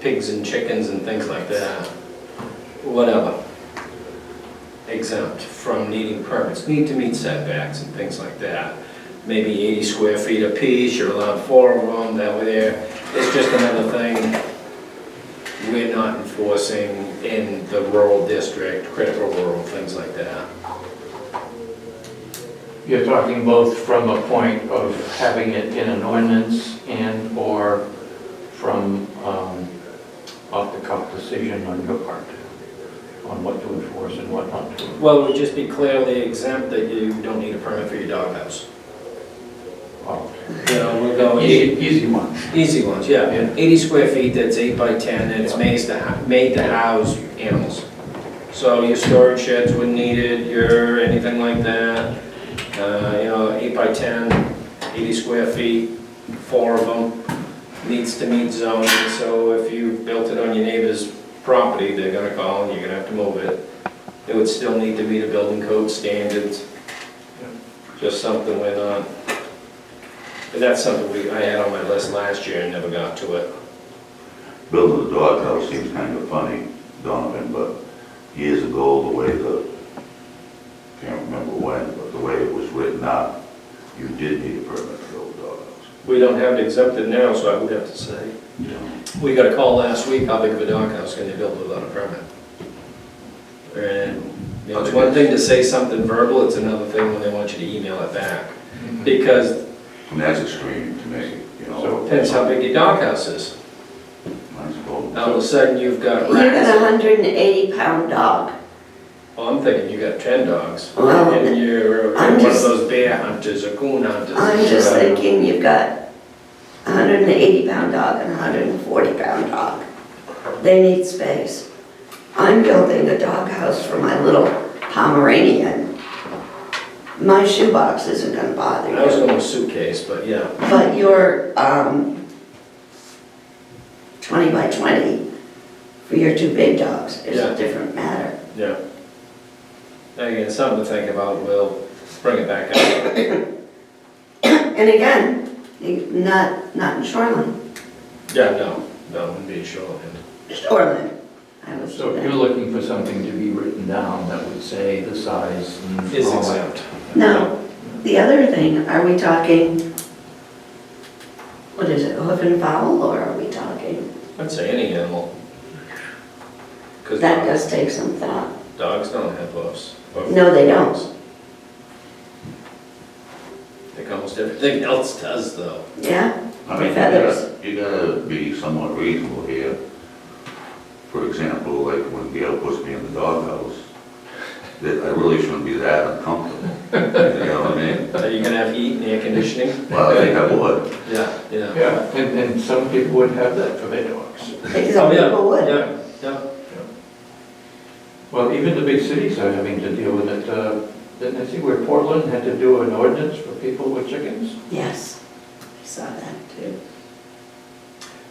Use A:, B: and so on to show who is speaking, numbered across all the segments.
A: pigs and chickens and things like that, whatever, exempt from needing permits, need to meet setbacks and things like that. Maybe 80 square feet apiece, you're allowed four of them, that way there, it's just another thing we're not enforcing in the rural district, critical rural, things like that.
B: You're talking both from a point of having it in an ordinance and/or from um, off-the-cuff decision on your part on what to enforce and what not to.
A: Well, it would just be clearly exempt that you don't need a permit for your doghouse.
B: Oh,
A: You know, we're going.
B: Easy easy one.
A: Easy ones, yeah.
B: Yeah.
A: 80 square feet, that's 8 by 10, and it's made to, made to house animals. So your storage sheds wouldn't need it, your, anything like that. Uh, You know, 8 by 10, 80 square feet, four of them, needs to meet zoning. So if you built it on your neighbor's property, they're gonna call and you're gonna have to move it. It would still need to meet the building code standards. Just something we're not but that's something we, I had on my list last year and never got to it.
C: Building a doghouse seems kind of funny, Donovan, but years ago, the way the, can't remember when, but the way it was written up, you did need a permit to build a doghouse.
A: We don't have it exempted now, so I would have to say.
C: you know?
A: We got a call last week, how big of a doghouse can you build without a permit? And, you know, it's one thing to say something verbal, it's another thing when they want you to email it back.
B: Mm-hmm.
A: Because
C: And that's extreme to me, you know?
B: So-
A: depends how big your doghouse is.
C: I suppose.
A: Now, all of a sudden, you've got
D: You got a
A: rats.
D: hundred and eighty pound dog.
A: Well, I'm thinking you got ten dogs.
D: Well,
A: And you're
D: I'm
A: one of
D: just-
A: those bear hunters or coon hunters.
D: I'm just
A: Right.
D: thinking you've got a hundred and eighty pound dog and a hundred and forty pound dog. They need space. I'm building a doghouse for my little Pomeranian. My shoebox isn't gonna bother
A: I was
D: you,
A: going with suitcase, but yeah.
D: but your, um, twenty by twenty for your two big dogs is
A: Yeah.
D: a different matter.
A: Yeah. Again, something to think about, we'll bring it back up.
D: And again, you- not, not in Shoreland,
A: Yeah, no, no, wouldn't be shorthand.
D: Shoreland. I was
B: So
D: there.
B: you're looking for something to be written down that would say the size and all that.
A: Is exempt.
D: Now, the other thing, are we talking, what is it, hoof and fowl, or are we talking?
A: I'd say any animal. Because
D: That does take some thought.
A: dogs don't have hooves. or-
D: No, they don't.
A: Like almost everything else does, though.
D: Yeah?
C: I mean, you
D: Feathers.
C: gotta, you gotta be somewhat reasonable here. For example, like when Gail puts me in the doghouse, that I really shouldn't be that uncomfortable, you know what I mean?
A: Are you gonna have heat and air conditioning?
C: Well, I think I would.
A: Yeah, yeah.
B: Yeah, and, and some people would have that for their dogs.
D: Because
A: Oh,
D: some
A: yeah,
D: people would.
A: Yeah, yeah.
B: Well, even the big cities are having to deal with it. Uh, Didn't I see where Portland had to do an ordinance for people with chickens?
D: Yes, I saw that too.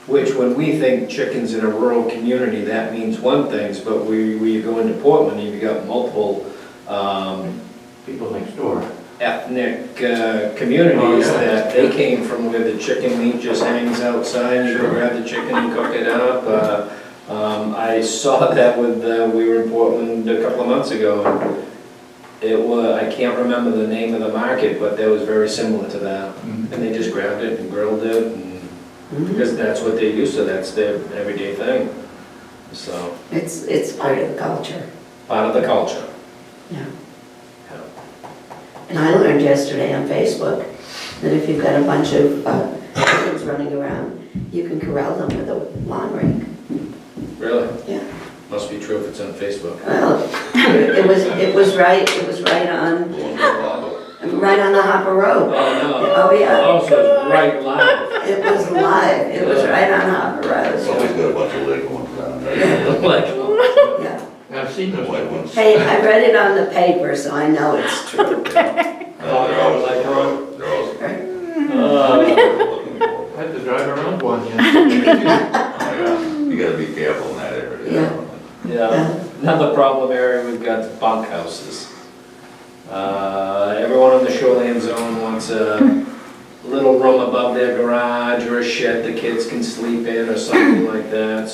A: Which, when we think chickens in a rural community, that means one thing, but we, we go into Portland, you've got multiple, um,
B: People next door.
A: ethnic uh, communities
B: Oh, yeah.
A: that they came from where the chicken meat just hangs outside, you can grab the chicken and cook it up. Uh, um, I saw that with, uh, we were in Portland a couple of months ago. and It was, I can't remember the name of the market, but that was very similar to that. And they just grabbed it and grilled it and,
D: Mhm.
A: because that's what they're used to, that's their everyday thing. So,
D: It's, it's part of the culture,
A: part of the culture.
D: yeah.
A: Yeah.
D: And I learned yesterday on Facebook that if you've got a bunch of uh, chickens running around, you can corral them with a lawn rake.
A: Really?
D: Yeah.
A: Must be true if it's on Facebook.
D: Well, it was, it was right, it was right on, right on the Hopper Road.
A: Oh, no.
D: Oh, yeah,
A: Oh, so it's right live.
D: it was live, it was right on Hopper Road,
C: Somebody's got
D: so,
C: a bunch of leg ones down there.
A: Like,
D: yeah.
B: I've seen those.
C: White ones.
D: Hey, I read it on the paper, so I know it's true.
C: Uh, They're always, they're always.
A: uh,
C: looking for.
B: I had to drive around one, yeah.
C: You gotta be careful in that area. you know?
A: Yeah, another problem area we've got is bunk houses. Uh, Everyone in the shoreline zone wants a little room above their garage or a shed the kids can sleep in or something like that,